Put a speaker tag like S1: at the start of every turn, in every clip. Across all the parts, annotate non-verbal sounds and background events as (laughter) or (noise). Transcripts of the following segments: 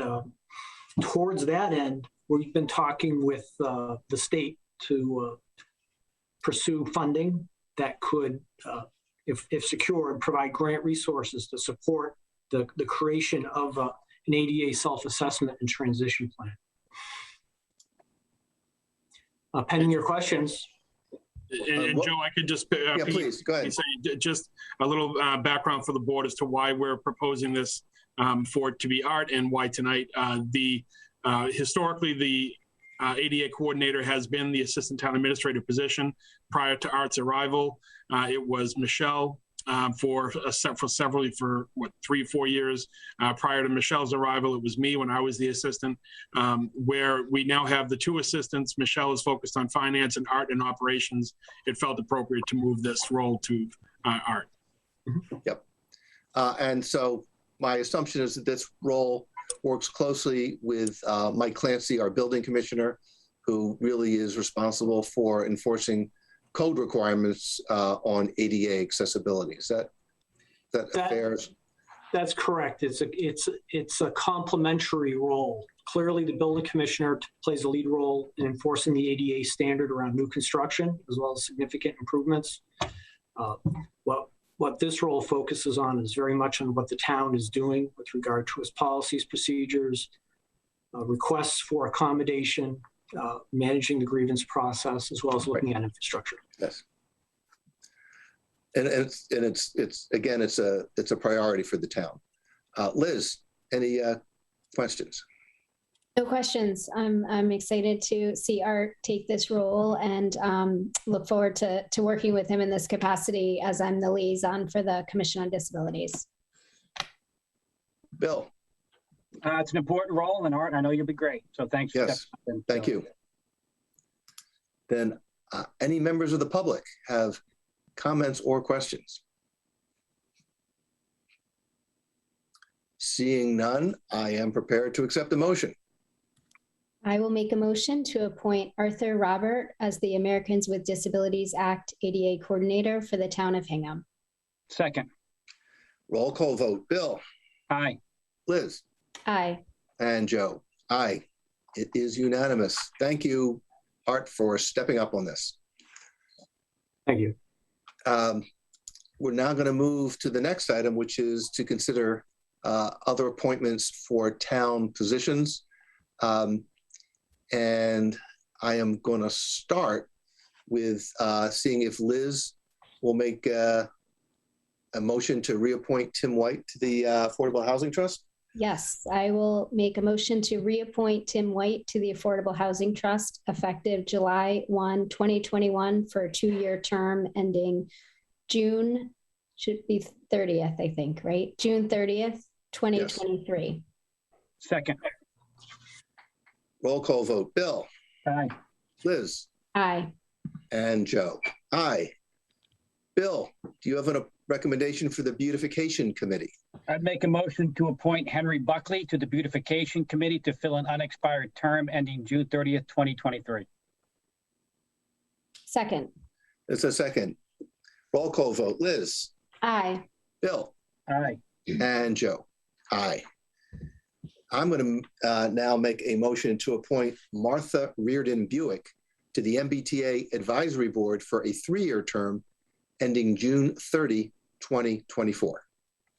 S1: um, towards that end, we've been talking with uh, the state to uh, pursue funding that could, uh, if, if secured, provide grant resources to support the, the creation of uh, an ADA self-assessment and transition plan. Uh, Pending your questions,
S2: And, and
S3: what-
S2: Joe, I could just. uh,
S3: Yeah,
S2: piggy-
S3: please, go ahead.
S2: say j- just a little uh, background for the board as to why we're proposing this um, for it to be art and why tonight. Uh, The, uh, historically, the uh, ADA coordinator has been the assistant town administrator position. Prior to art's arrival, uh, it was Michelle um, for a se- for several, for what, three, four years. Uh, Prior to Michelle's arrival, it was me when I was the assistant. um, Where we now have the two assistants, Michelle is focused on finance and art and operations it felt appropriate to move this role to uh, Art.
S3: Uh, and so my assumption is that this role works closely with uh, Mike Clancy, our building commissioner, who really is responsible for enforcing code requirements uh, on ADA accessibility. Is that is that,
S1: That-
S3: that fair?
S1: that's correct. It's a, it's, it's a complementary role. Clearly, the building commissioner t- plays a lead role in enforcing the ADA standard around new construction as well as significant improvements. Uh, What, what this role focuses on is very much on what the town is doing with regard to its policies, procedures, uh, requests for accommodation, uh, managing the grievance process, as well as looking at infrastructure.
S3: Yes. And it's and it's it's again it's a it's a priority for the town. Uh, Liz, any uh, questions?
S4: No questions. I'm, I'm excited to see Art take this role and um, look forward to, to working with him in this capacity as I'm the liaison for the Commission on Disabilities.
S3: Bill,
S5: Uh, it's an important role in art. and I know you'll be great. So thanks. for
S3: Yes,
S5: stepping in.
S3: thank
S5: So-
S3: you. Then uh, any members of the public have comments or questions? Seeing none, I am prepared to accept the motion.
S4: I will make a motion to appoint Arthur Robert as the Americans with Disabilities Act ADA Coordinator for the Town of Hingham.
S5: Second,
S3: Roll call vote. Bill,
S5: aye.
S3: Liz.
S4: Aye.
S3: And Joe, aye. It is unanimous. Thank you, Art, for stepping up on this.
S1: Thank you.
S3: Um, We're now going to move to the next item, which is to consider uh, other appointments for town positions. Um, And I am going to start with uh, seeing if Liz will make uh, a motion to reappoint Tim White to the uh, Affordable Housing Trust.
S4: Yes, I will make a motion to reappoint Tim White to the Affordable Housing Trust effective July 1, 2021 for a two-year term ending June, should be 30th, I think, right? June 30th, 2023.
S5: Second,
S3: Roll call vote. Bill,
S5: aye.
S3: Liz,
S4: Aye.
S3: and Joe. Aye. Bill, do you have a recommendation for the Beautification Committee?
S5: I'd make a motion to appoint Henry Buckley to the Beautification Committee to fill an unexpired term ending June 30th, 2023.
S4: Second.
S3: It's a second. Roll call vote. Liz,
S4: Aye.
S3: Bill,
S5: Aye.
S3: and Joe. Aye. I'm going to now make a motion to appoint Martha Reardon Buick to the MBTA Advisory Board for a three-year term ending June 30, 2024.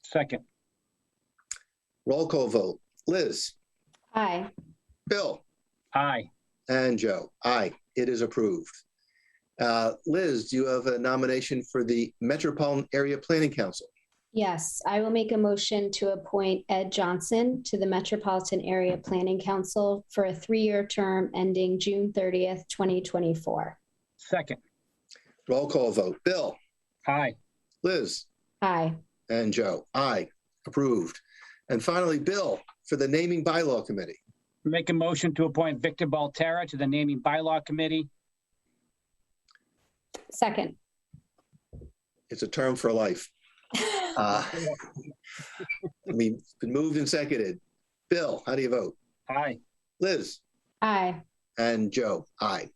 S5: Second,
S3: Roll call vote. Liz,
S4: Aye.
S3: Bill,
S5: aye.
S3: And Joe, aye, it is approved. Uh, Liz, do you have a nomination for the Metropolitan Area Planning Council?
S4: Yes, I will make a motion to appoint Ed Johnson to the Metropolitan Area Planning Council for a three-year term ending June 30th, 2024.
S5: Second,
S3: Roll call vote. Bill,
S5: aye.
S3: Liz,
S4: Aye.
S3: and Joe, aye, approved. And finally, Bill, for the Naming Bylaw Committee.
S5: Make a motion to appoint Victor Baltara to the Naming Bylaw Committee.
S4: Second.
S3: It's a term for life. Uh, (laughs) I mean, it's been moved and seconded. Bill, how do you vote?
S5: Aye.
S3: Liz?
S4: Aye.
S3: And Joe, aye.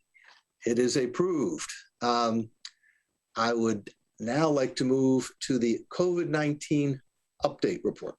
S3: It is approved. Um, I would now like to move to the COVID-19 update report.